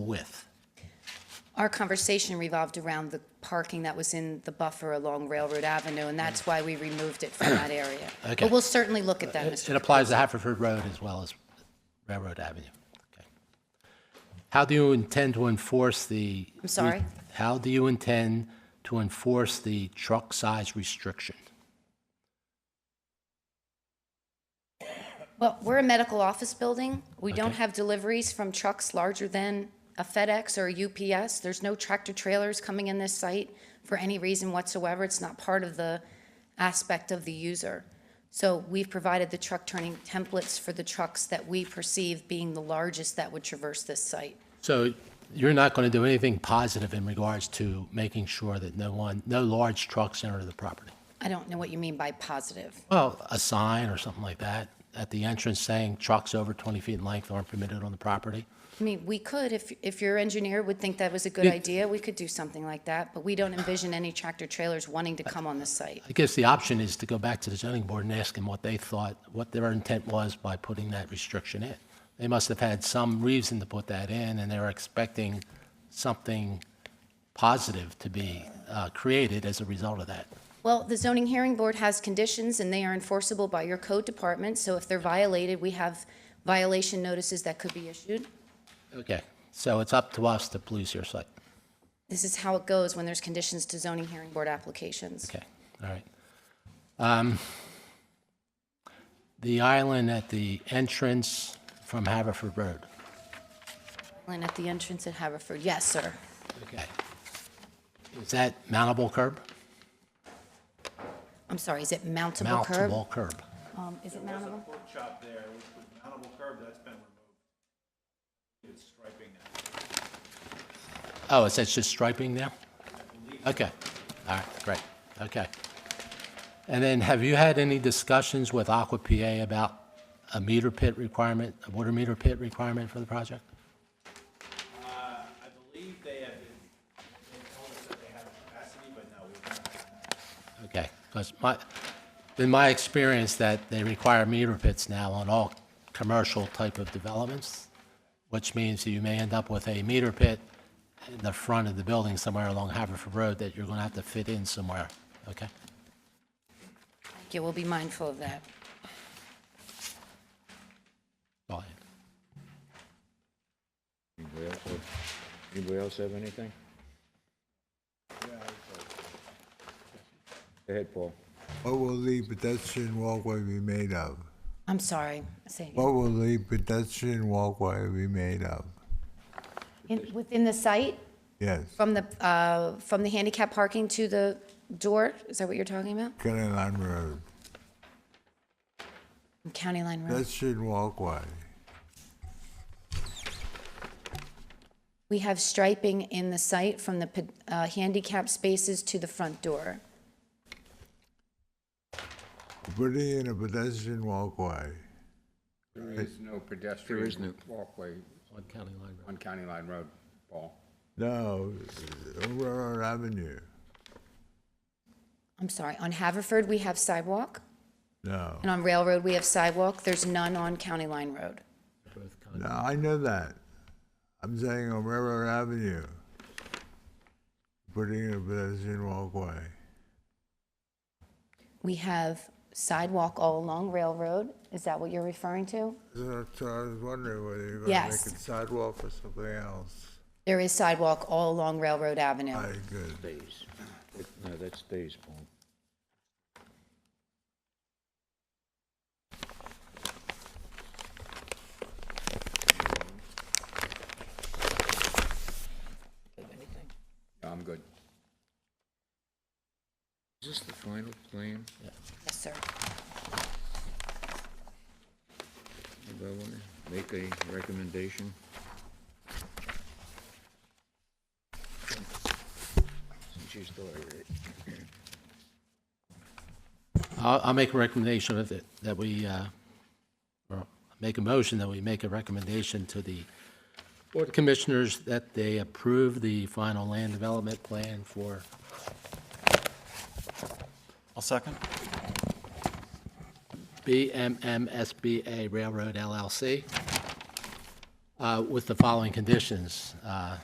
with? Our conversation revolved around the parking that was in the buffer along Railroad Avenue, and that's why we removed it from that area. Okay. Uh, But we'll certainly look at that, It Mr. it applies to Haverford Road as well as Railroad Avenue. Okay. How do you intend to enforce the? I'm sorry? How do you intend to enforce the truck size restriction? Well, we're a medical office building. We don't uh, Okay. have deliveries from trucks larger than a FedEx or a UPS. There's no tractor trailers coming in this site for any reason whatsoever. It's not part of the aspect of the user. So we've provided the truck turning templates for the trucks that we perceive being the largest that would traverse this site. So you're not going to do anything positive in regards to making sure that no one, no large trucks enter the property? I don't know what you mean by positive. Well, a sign or something like that at the entrance saying trucks over 20 feet in length aren't permitted on the property? I mean, we could, if, if your engineer would think that was a good Yeah. idea, we could do something like that, but we don't envision any tractor trailers wanting to come on the site. I guess the option is to go back to the zoning board and ask them what they thought, what their intent was by putting that restriction in. They must have had some reason to put that in, and they were expecting something positive to be uh, created as a result of that. Well, the zoning hearing board has conditions, and they are enforceable by your code department, so if they're violated, we have violation notices that could be issued. Okay, so it's up to us to police your site. This is how it goes when there's conditions to zoning hearing board applications. Okay, all right. Um, The island at the entrance from Haverford Road. And at the entrance at Haverford, yes, sir. Okay. Is that mountable curb? I'm sorry, is it mountable curb? Mountable curb. Um, Is it mountable? pork chop there, which was mountable curb, that's been removed. It's striping now. Oh, is that just striping now? Okay, all right, great, okay. And then have you had any discussions with Aqua PA about a meter pit requirement, a water meter pit requirement for the project? Uh, I believe they have, been- they told us that they have capacity, but no, we've not. Okay, because my, in my experience, that they require meter pits now on all commercial type of developments, which means you may end up with a meter pit in the front of the building somewhere along Haverford Road that you're going to have to fit in somewhere, okay? Thank you, we'll be mindful of that. Go ahead. Anybody else have, anybody else have anything? Go ahead, Paul. What will the pedestrian walkway be made of? I'm sorry, say again. What will the pedestrian walkway be made of? In- Within the site, Yes, from the, uh, from the handicap parking to the door, is that what you're talking about? County Line Road, County Line Road. pedestrian walkway. We have striping in the site from the ped- uh, handicap spaces to the front door. Putting in a pedestrian walkway. There is no pedestrian walkway On County Line Road. on County Line Road, Paul. No, on Railroad Avenue, I'm sorry, on Haverford, we have sidewalk, no. and on Railroad, we have sidewalk. There's none on County Line Road. No, I know that. I'm saying on Railroad Avenue. Putting in a pedestrian walkway. We have sidewalk all along Railroad. Is that what you're referring to? So so I was wondering whether you're gonna make Yes. it sidewalk or something else. There is sidewalk all along Railroad Avenue. All right, good. Stays. No, that stays, Paul. No, I'm good. Is this the final plan Yes, sir. development? Make a recommendation? Since you started it. I'll, I'll make a recommendation of it, that we, uh, or make a motion that we make a recommendation to the Board of Commissioners that they approve the final land development plan for I'll second. BMMSBA Railroad LLC. uh, with the following conditions. Uh,